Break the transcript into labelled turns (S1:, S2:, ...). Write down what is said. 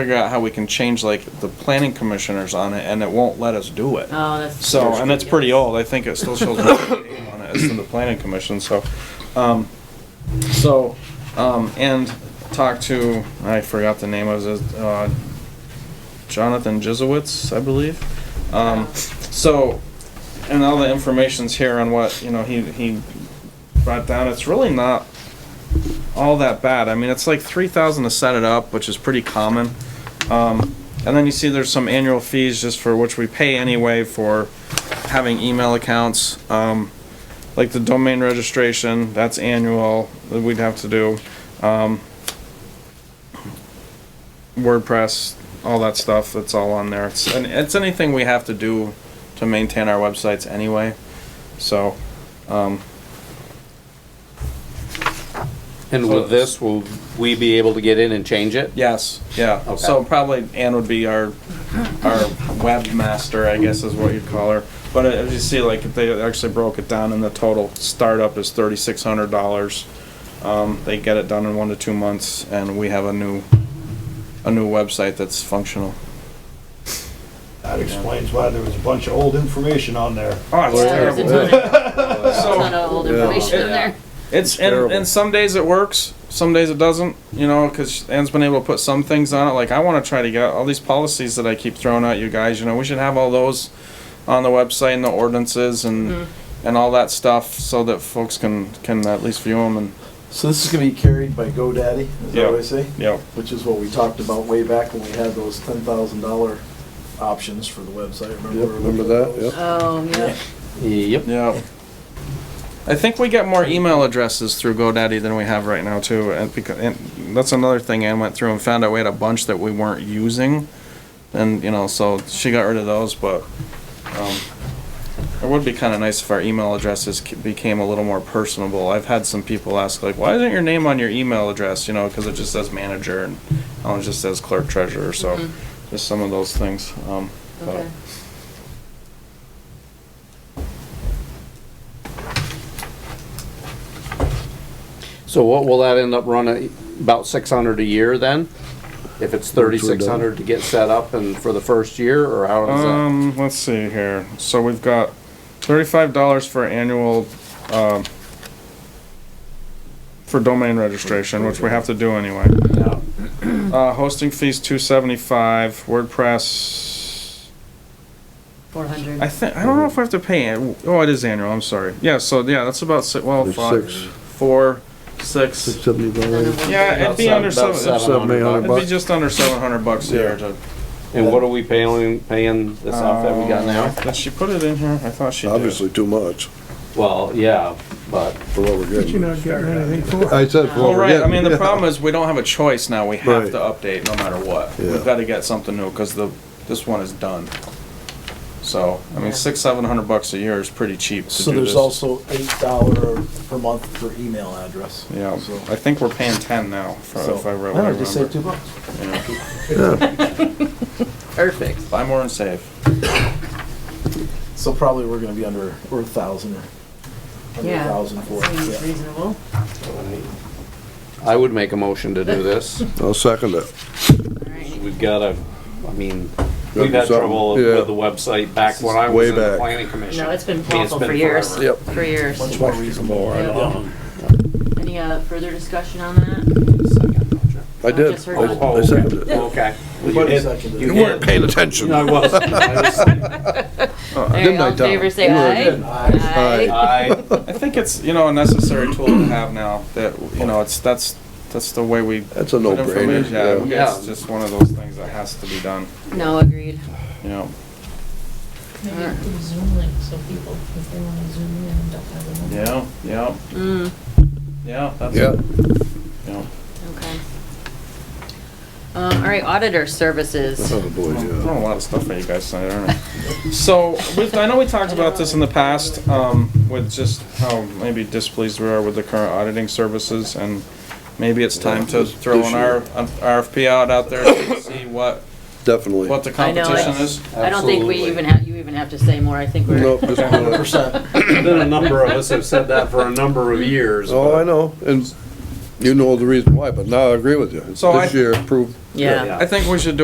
S1: figure out how we can change like the planning commissioners on it, and it won't let us do it.
S2: Oh, that's.
S1: So, and it's pretty old, I think it still shows on it as to the planning commission, so, um, so, um, and talked to, I forgot the name of it, uh, Jonathan Jizowitz, I believe. Um, so, and all the information's here on what, you know, he, he brought down, it's really not all that bad, I mean, it's like three thousand to set it up, which is pretty common. Um, and then you see there's some annual fees just for which we pay anyway for having email accounts. Um, like the domain registration, that's annual that we'd have to do. Um, WordPress, all that stuff, that's all on there. It's, and it's anything we have to do to maintain our websites anyway. So, um,
S3: And with this, will we be able to get in and change it?
S1: yes, yeah.
S3: Okay.
S1: So probably Ann would be our our webmaster, I guess is what you'd call her. But as you see, like, they actually broke it down and the total startup is thirty-six hundred dollars. Um, they get it done in one to two months and we have a new, a new website that's functional.
S4: That explains why there was a bunch of old information on there.
S1: Oh, it's
S2: Yeah, there's a
S1: terrible.
S2: ton of- a ton
S1: So,
S2: of old information in there.
S1: it's, and, and some days it works, some days it doesn't, you know, cause Ann's been able to put some things on it, like, I wanna try to get all these policies that I keep throwing at you guys, you know, we should have all those on the website and the ordinances and, and all that stuff, so that folks can, can at least view them and,
S5: So this is gonna be carried by GoDaddy, is
S1: Yeah.
S5: that what I say?
S1: you know,
S5: Which is what we talked about way back when we had those ten thousand dollar options for the website, remember?
S6: Yep, remember that,
S5: those?
S6: yep.
S2: Oh, yeah.
S3: Yep.
S1: Yeah. I think we get more email addresses through GoDaddy than we have right now too, and because, and that's another thing Ann went through and found out we had a bunch that we weren't using. And, you know, so she got rid of those, but, um, it would be kinda nice if our email addresses c- became a little more personable. I've had some people ask like, why isn't your name on your email address, you know, cause it just says manager and, oh, it just says clerk treasurer, so, just some of those things, um, but-
S2: Okay.
S3: So what will that end up running, about six hundred a year then? If it's thirty-six hundred to get set up and for the first year, or how does that?
S1: Um, let's see here. So we've got thirty-five dollars for annual, um, for domain registration, which we have to do anyway. Uh, hosting fees two seventy-five, WordPress,
S2: Four hundred.
S1: I think, I don't know if we have to pay, an- oh, it is annual, I'm sorry. Yeah, so, yeah, that's about si- well,
S6: There's
S1: five,
S6: six.
S1: four, six.
S6: Six seventy dollars.
S1: Yeah, it'd be
S3: About
S1: under
S3: seven-
S1: seven,
S3: about
S6: seven, eight hundred
S1: it'd be
S6: bucks.
S1: just under seven hundred bucks a year
S6: Yeah.
S1: to.
S3: And what are we paying, paying this off that we got now?
S1: Did uh, she put it in here? I thought she did.
S6: Obviously too much
S3: Well, yeah, but
S6: for what we're
S7: You're
S6: getting.
S7: not getting anything for it.
S6: I said for
S1: Well,
S6: what we're
S1: right,
S6: getting.
S1: I mean, the problem is, we don't have a choice now, we have
S6: Right.
S1: to update no matter what.
S6: Yeah.
S1: We've gotta get something new, cause the, this one is done. So, I mean,
S2: Yeah.
S1: six, seven hundred bucks a year is pretty cheap to
S5: So
S1: do
S5: there's
S1: this.
S5: also eight dollar per month for email address.
S1: Yeah,
S5: So-
S1: I think we're paying ten now, if I-
S5: so-
S1: if I re-
S5: don't
S1: what I
S5: know, Just save
S1: remember.
S5: two bucks.
S2: Perfect.
S1: Buy more and save.
S5: So probably we're gonna be under, or a thousand, or under a
S2: Yeah.
S5: thousand for it,
S2: Seems
S5: yeah.
S2: reasonable.
S3: I would make a motion to do this.
S6: I'll second it.
S2: All right.
S3: We've gotta, I mean,
S6: do
S3: we've had
S6: something,
S3: trouble
S6: yeah.
S3: with the website back when I
S6: Way
S3: was in the
S6: back.
S3: planning commission.
S2: No, it's been
S3: I mean,
S2: awful for years.
S3: forever.
S2: For years.
S5: Much more reasonable.
S2: Yeah.
S3: Um,
S2: Any uh, further discussion on that?
S3: second, don't you?
S6: I did.
S2: just heard
S6: I-
S2: one.
S6: I seconded it.
S3: Oh, Okay.
S5: You seconded it.
S3: You
S6: weren't
S3: did.
S6: paying attention.
S3: No, I wasn't. I was
S2: There you
S6: Didn't I,
S2: go, in
S6: Tom?
S2: favor, say
S6: You were
S2: aye.
S6: good.
S2: Aye.
S3: I,
S1: I think it's, you know, a necessary tool to have now, that, you know, it's, that's, that's the way we.
S6: That's a
S1: put information-
S6: no-brainer. yeah.
S1: Yeah, it's
S3: Yeah.
S1: just one of those things that has to be done,
S2: No, agreed.
S1: you know.
S8: Maybe do Zoom link so people, if they wanna zoom in, don't have a mobile.
S1: Yeah, yeah,
S2: Mm,
S1: yeah, that's.
S6: Yeah,
S1: You know.
S2: okay. Um, all right, auditor services.
S6: oh boy,
S1: I'm
S6: yeah.
S1: throwing a lot of stuff at you guys tonight, aren't I? So, with, I know we talked about this in the past, um, with just how maybe displeased we are with the current auditing services, and maybe it's time to throw an R, an RFP out, out there to see what,
S6: Definitely.
S1: what the
S2: I know,
S1: competition
S2: it's-
S1: is.
S2: I don't think we
S3: Absolutely.
S2: even have, you even have to say more. I think we're,
S6: Nope, just
S5: Hundred
S6: do it.
S5: percent.
S3: been a number of us have said that for a number of years.
S6: Oh,
S3: but
S6: I know, and You know the reason why, but now I agree with you.
S1: So I-
S6: This year proved
S2: yeah.
S3: Yeah.
S1: I think we should do